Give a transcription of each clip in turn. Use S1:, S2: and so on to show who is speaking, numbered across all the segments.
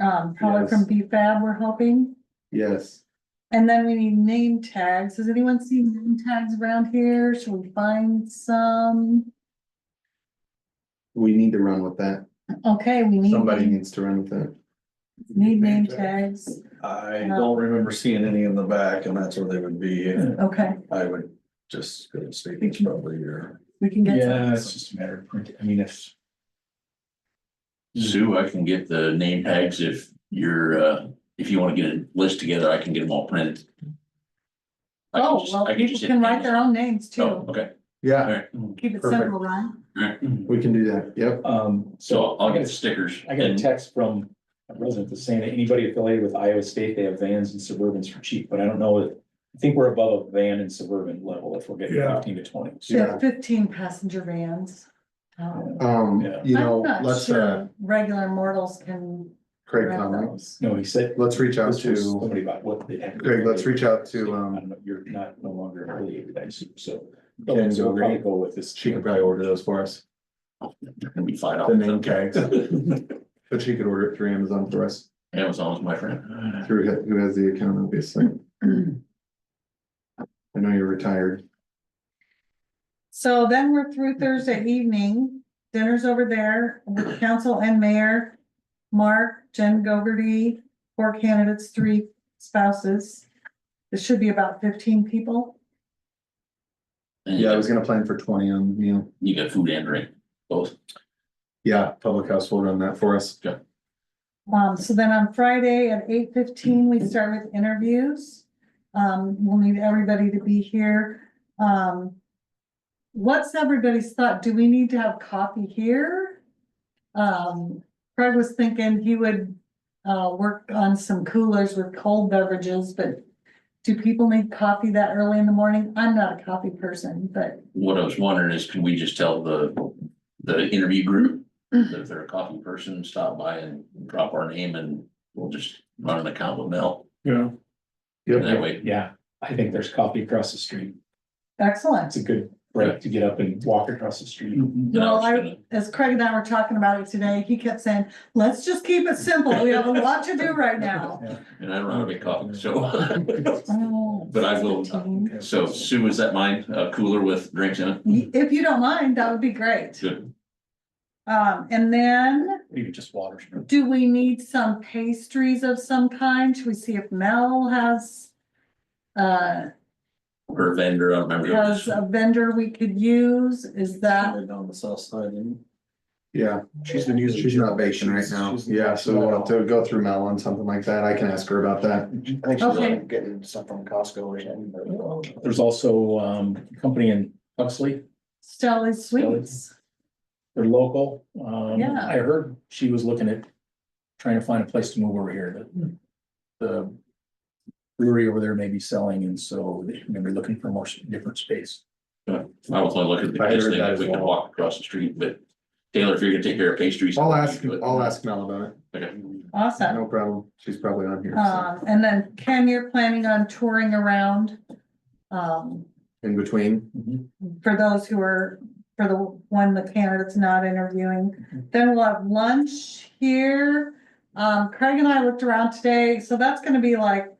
S1: um, probably from BFAB we're hoping.
S2: Yes,
S1: And then we need name tags. Has anyone seen name tags around here? Should we find some?
S2: we need to run with that.
S1: Okay, we need,
S2: Somebody
S1: name-
S2: needs to run with that.
S1: need name tags.
S3: I don't remember seeing any in the back and that's where they would be. And
S1: Okay,
S3: I would just go to state, it's probably your.
S1: we can get
S4: Yeah,
S1: some.
S4: it's just a matter of, print- I mean, if,
S5: Sue, I can get the name tags if you're, uh, if you wanna get a list together, I can get them all printed. I can
S1: Oh,
S5: just-
S1: well,
S5: I
S1: people
S5: just hit
S1: can write their
S5: Amazon.
S1: own names
S5: Oh,
S1: too.
S5: okay,
S2: Yeah,
S5: alright,
S1: Keep it
S2: perfect.
S1: simple, right?
S5: alright,
S2: we can do that. Yep.
S4: Mm-hmm. um,
S5: so
S4: so
S5: I'll
S4: I
S5: get
S4: got, a-
S5: stickers.
S4: I got a
S5: and-
S4: text from a resident that's saying that anybody affiliated with Iowa State, they have vans and Suburbans for cheap, but I don't know if. I think we're above a van and Suburban level if we're getting
S3: Yeah.
S4: fifteen to twenty.
S1: They have
S2: Yeah.
S1: Fifteen passenger vans. Um,
S2: Um,
S4: Yeah.
S2: you
S1: I'm
S2: know,
S1: not
S2: let's,
S1: sure
S2: uh,
S1: Regular mortals can
S2: Craig
S1: rent
S2: Conley,
S1: those.
S4: No, he said.
S2: let's reach out
S4: this was
S2: to,
S4: Somebody about what they had.
S2: Greg, let's reach out to,
S4: I
S2: um,
S4: don't know, You're not no longer affiliated, I assume, so.
S2: Jen
S4: So we'll probably
S2: Gilbert.
S4: go with this.
S2: She can probably order those for us,
S5: Gonna be five
S2: the
S5: dollars.
S2: name tags. But she could order it through Amazon for us,
S5: Amazon's my friend.
S2: through who- who has the account, obviously. I know you're retired.
S1: So then we're through Thursday evening, dinner's over there with council and mayor. Mark, Jen Gogarty, four candidates, three spouses. This should be about fifteen people.
S5: And you
S2: Yeah, I
S5: got-
S2: was gonna plan for twenty on the meal.
S5: You got food and drink, both.
S2: Yeah, public house vote on that for us.
S1: Um, so then on Friday at eight fifteen, we start with interviews. Um, we'll need everybody to be here. Um. What's everybody's thought? Do we need to have coffee here? Um, Craig was thinking he would, uh, work on some coolers with cold beverages, but. Do people need coffee that early in the morning? I'm not a coffee person, but
S5: What I was wondering is, can we just tell the, the interview group?
S1: Mm-hmm.
S5: that If they're a coffee person, stop by and drop our name and we'll just run an account with Mel.
S3: Yeah.
S5: And that
S2: Yep,
S5: way,
S4: Yeah, I think there's coffee across the street.
S1: excellent.
S4: That's a good break to get up and walk across the street.
S5: then I was
S1: Well, I-
S5: gonna-
S1: as Craig and I were talking about it today, he kept saying, let's just keep it simple. We have a lot to do right now.
S5: And I don't know how to make coffee, so.
S1: But
S5: But I will- uh, So Sue, is that mine? A cooler with drinks in it?
S1: If you don't mind, that would be great.
S5: Good.
S1: Um, and then
S4: Maybe just water.
S1: do we need some pastries of some kind? Should we see if Mel has uh,
S5: Or a vendor, I don't remember.
S1: has a vendor we could use? Is that,
S3: Down the south side. and-
S2: yeah,
S3: She's been using.
S2: she's not baking right now.
S3: She's- she's-
S2: Yeah, so we'll have to go through Mel on something like that. I can ask her about that.
S3: I think
S4: uh,
S3: she's
S1: Okay.
S3: like getting stuff from Costco or something. but-
S4: There's also um a company in Huxley,
S1: Stella's Sweets?
S4: they're local. Um
S1: Yeah.
S4: I heard she was looking at trying to find a place to move over here
S1: Hmm.
S4: that the brewery over there may be selling and so they're gonna be looking for more s- different space.
S5: I was only looking at the
S2: I heard
S5: best thing,
S2: that
S5: if we
S2: as
S5: could
S2: well.
S5: walk across the street, but Taylor, if you're gonna take care of pastries.
S2: I'll ask,
S5: you do it.
S2: I'll ask Mel about
S5: Okay.
S2: it.
S1: Awesome.
S2: No problem. She's probably on here. so.
S1: Um, and then Ken, you're planning on touring around. Um,
S2: In between,
S1: Mm-hmm. for those who are, for the one the candidate's not interviewing. Then we'll have lunch here. Um, Craig and I looked around today, so that's gonna be like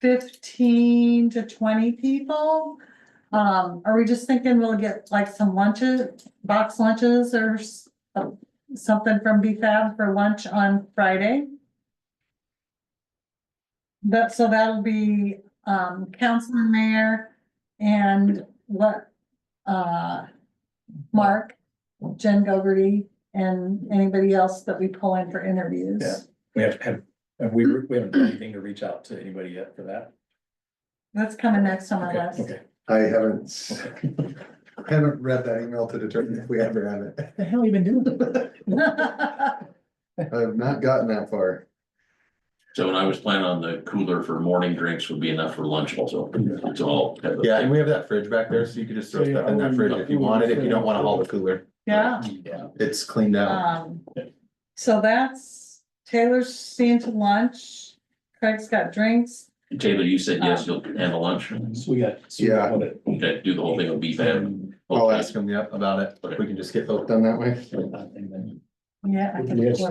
S1: fifteen to twenty people. Um, are we just thinking we'll get like some lunches, box lunches or s- uh, something from BFAB for lunch on Friday? That, so that'll be, um, council and mayor and what, uh, Mark, Jen Gogarty, and anybody else that we pull in for interviews.
S4: Yeah. We have, have, have we, we haven't done anything to reach out to anybody yet for that.
S1: That's coming next on my
S4: Okay,
S1: list.
S4: okay.
S2: I haven't, s- haven't read that email to determine if we ever have it.
S4: What the hell you been doing?
S2: I have not gotten that far.
S5: So when I was planning on the cooler for morning drinks would be enough for lunch also. It's all.
S2: Yeah, and we have that fridge back there, so you could just throw
S4: So, yeah,
S2: stuff in
S4: I
S2: that fridge
S4: wouldn't-
S2: if you wanted, if you don't wanna haul the cooler.
S1: Yeah,
S4: Yeah.
S2: It's cleaned out.
S1: um, so that's, Taylor's seeing to lunch, Craig's got drinks.
S5: Taylor, you said yes, you'll handle lunch.
S4: So we got. so we
S2: Yeah.
S4: got it.
S5: Okay, do the whole thing with beef and.
S2: I'll ask him, yep, about it. We can just get both done that way.
S4: uh, And then-
S1: Yeah. I think
S4: Yes.
S1: we're-